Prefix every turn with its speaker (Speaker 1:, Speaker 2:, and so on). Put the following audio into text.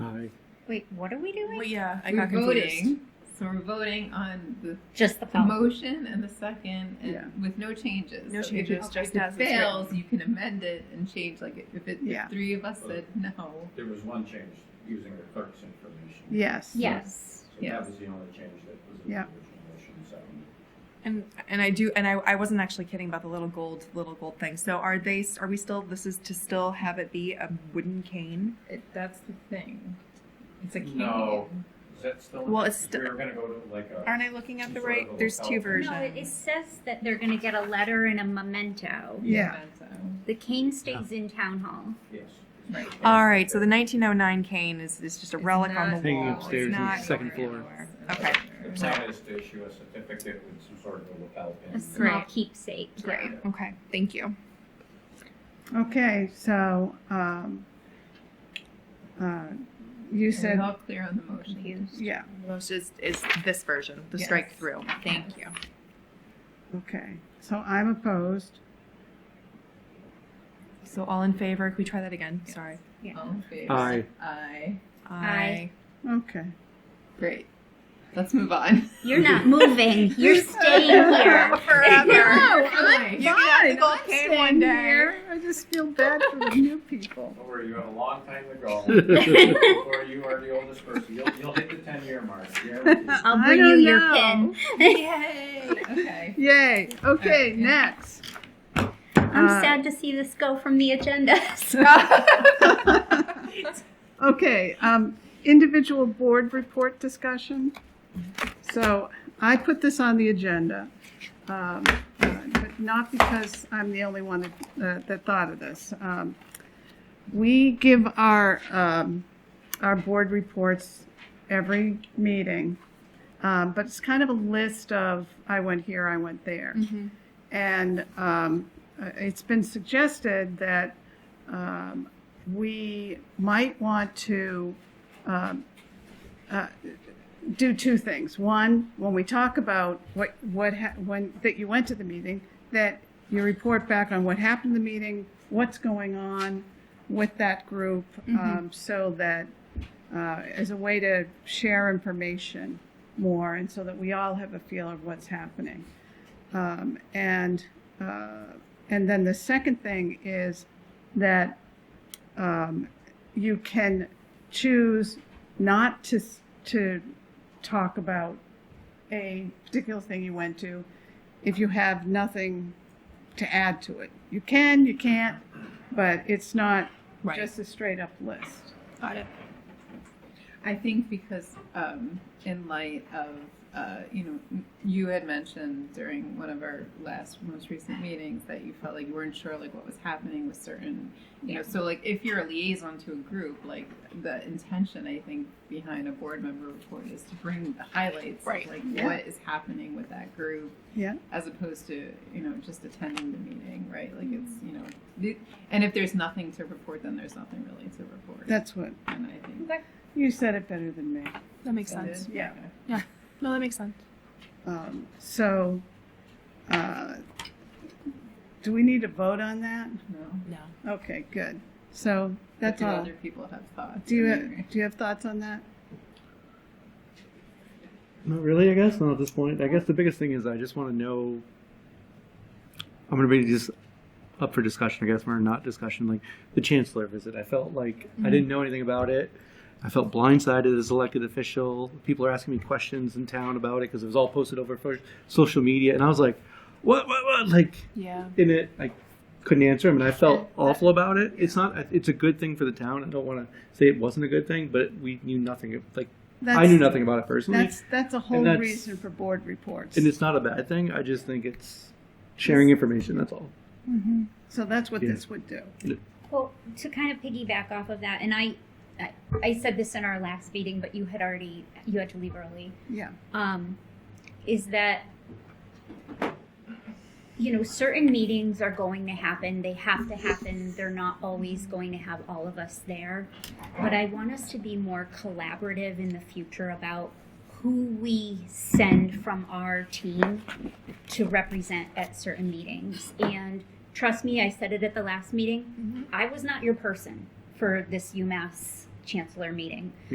Speaker 1: Wait, what are we doing?
Speaker 2: Well, yeah, I
Speaker 3: we're
Speaker 2: got confused.
Speaker 3: voting. So we're voting on the,
Speaker 1: Just the
Speaker 3: the
Speaker 1: poem.
Speaker 3: motion and the second, and
Speaker 2: Yeah.
Speaker 3: with no changes.
Speaker 2: No
Speaker 3: So if it-
Speaker 2: changes, just as
Speaker 3: If
Speaker 2: it's
Speaker 3: it fails, you can amend it and change. Like if it,
Speaker 2: Yeah.
Speaker 3: if three of us said no,
Speaker 4: There was one change, using the clerk's information.
Speaker 2: Yes.
Speaker 1: Yes.
Speaker 4: So
Speaker 3: Yes.
Speaker 4: that was the only change that was in the
Speaker 2: Yeah.
Speaker 4: original motion, so.
Speaker 2: And and I do and I, I wasn't actually kidding about the little gold little gold thing. So are they are we still this is to still have it be a wooden cane?
Speaker 3: it, that's the thing. It's a cane.
Speaker 4: No. Is that still?
Speaker 2: Well, it's
Speaker 4: We were gonna go to like a.
Speaker 2: Aren't I looking at the right? There's two versions.
Speaker 1: No, it, it says that they're going to get a letter and a memento.
Speaker 2: Yeah.
Speaker 1: The cane stays in town hall.
Speaker 4: Yes.
Speaker 3: Right.
Speaker 2: All right, so the 1909 cane is, is just a
Speaker 3: It's
Speaker 2: relic on the
Speaker 3: not-
Speaker 2: wall.
Speaker 5: Hanging
Speaker 2: It's
Speaker 5: upstairs in the
Speaker 2: not
Speaker 5: second
Speaker 2: going
Speaker 5: floor.
Speaker 2: anywhere. Okay,
Speaker 4: The plan is to issue a certificate with some sort of a lapel
Speaker 1: A
Speaker 4: pin.
Speaker 1: small
Speaker 2: Great.
Speaker 1: keepsake.
Speaker 2: great. Okay, thank you.
Speaker 6: Okay, so, um, uh, you
Speaker 3: Is it
Speaker 6: said,
Speaker 3: all clear on the motion?
Speaker 6: yeah,
Speaker 2: Most is, is this version, the
Speaker 3: Yes.
Speaker 2: strike through. Thank you.
Speaker 6: okay. So I'm opposed.
Speaker 2: So all in favor? Can we try that again? Sorry.
Speaker 3: All in favor?
Speaker 5: Aye.
Speaker 3: Aye.
Speaker 1: Aye.
Speaker 6: Okay.
Speaker 3: Great. Let's move on.
Speaker 1: You're not moving. You're staying here.
Speaker 2: Forever.
Speaker 3: I'm
Speaker 2: You can have the gold
Speaker 6: I'm
Speaker 2: cane
Speaker 6: staying
Speaker 2: one day.
Speaker 6: here. I just feel bad for the new people.
Speaker 4: Don't worry, you had a long time to go. Before you are the oldest person, you'll, you'll hit the ten-year mark. Yeah.
Speaker 1: I'll
Speaker 6: I
Speaker 1: bring you
Speaker 6: don't
Speaker 1: your
Speaker 6: know.
Speaker 1: pin.
Speaker 3: Yay! Okay.
Speaker 6: Yay, okay,
Speaker 3: Alright, yeah.
Speaker 6: next.
Speaker 1: I'm
Speaker 6: Uh,
Speaker 1: sad to see this go from the agenda.
Speaker 6: Okay, um, individual board report discussion. So I put this on the agenda, um, uh, but not because I'm the only one that, uh, that thought of this. Um, We give our, um, our board reports every meeting, um, but it's kind of a list of, I went here, I went there. And um, uh, it's been suggested that um, we might want to um, uh, do two things. One, when we talk about what what ha- when that you went to the meeting, that you report back on what happened in the meeting, what's going on with that group, um, so that uh, as a way to share information more, and so that we all have a feel of what's happening. Um, and uh, and then the second thing is that um, you can choose not to s- to talk about a particular thing you went to if you have nothing to add to it. You can, you can't, but it's not
Speaker 2: Right.
Speaker 6: just a straight up list.
Speaker 3: Got it. I think because um, in light of uh, you know m- you had mentioned during one of our last most recent meetings that you felt like you weren't sure like what was happening with certain you know so like if you're a liaison to a group like the intention I think behind a board member report is to bring the highlights
Speaker 2: Right.
Speaker 3: of like
Speaker 6: Yeah.
Speaker 3: what is happening with that group
Speaker 6: Yeah.
Speaker 3: as opposed to you know just attending the meeting right like it's you know the- and if there's nothing to report then there's nothing really to report
Speaker 6: That's what
Speaker 3: and I think
Speaker 6: you said it better than me.
Speaker 2: That makes
Speaker 3: that is-
Speaker 2: sense.
Speaker 6: Yeah.
Speaker 2: No, that makes sense.
Speaker 6: Um, so, uh, do we need to vote on that?
Speaker 3: No.
Speaker 2: No.
Speaker 6: Okay, good. So that's
Speaker 3: Do
Speaker 6: all.
Speaker 3: Other people have thoughts.
Speaker 6: Do you
Speaker 3: I
Speaker 6: have,
Speaker 3: mean,
Speaker 6: do you have thoughts on that?
Speaker 5: Not really, I guess. Not at this point. I guess the biggest thing is I just want to know. I'm going to be just up for discussion, I guess, or not discussion. Like the chancellor visit, I felt like I didn't know anything about it. I felt blindsided as elected official. People are asking me questions in town about it because it was all posted over fo- social media, and I was like, "What? What? What?" Like
Speaker 2: Yeah.
Speaker 5: in it, I couldn't answer him, and I felt awful about it. It's not. It's a good thing for the town. I don't want to say it wasn't a good thing, but we knew nothing. Like I
Speaker 6: That's-
Speaker 5: knew nothing about it personally.
Speaker 6: That's, that's a whole
Speaker 5: that's-
Speaker 6: reason for board reports.
Speaker 5: And it's not a bad thing. I just think it's sharing information. That's all.
Speaker 6: So that's what
Speaker 5: Yeah.
Speaker 6: this would do.
Speaker 1: Well, to kind of piggyback off of that, and I, I, I said this in our last meeting, but you had already you had to leave early.
Speaker 6: Yeah.
Speaker 1: Um, is that you know certain meetings are going to happen. They have to happen. They're not always going to have all of us there, but I want us to be more collaborative in the future about who we send from our team to represent at certain meetings and trust me i said it at the last meeting I was not your person for this UMass chancellor meeting.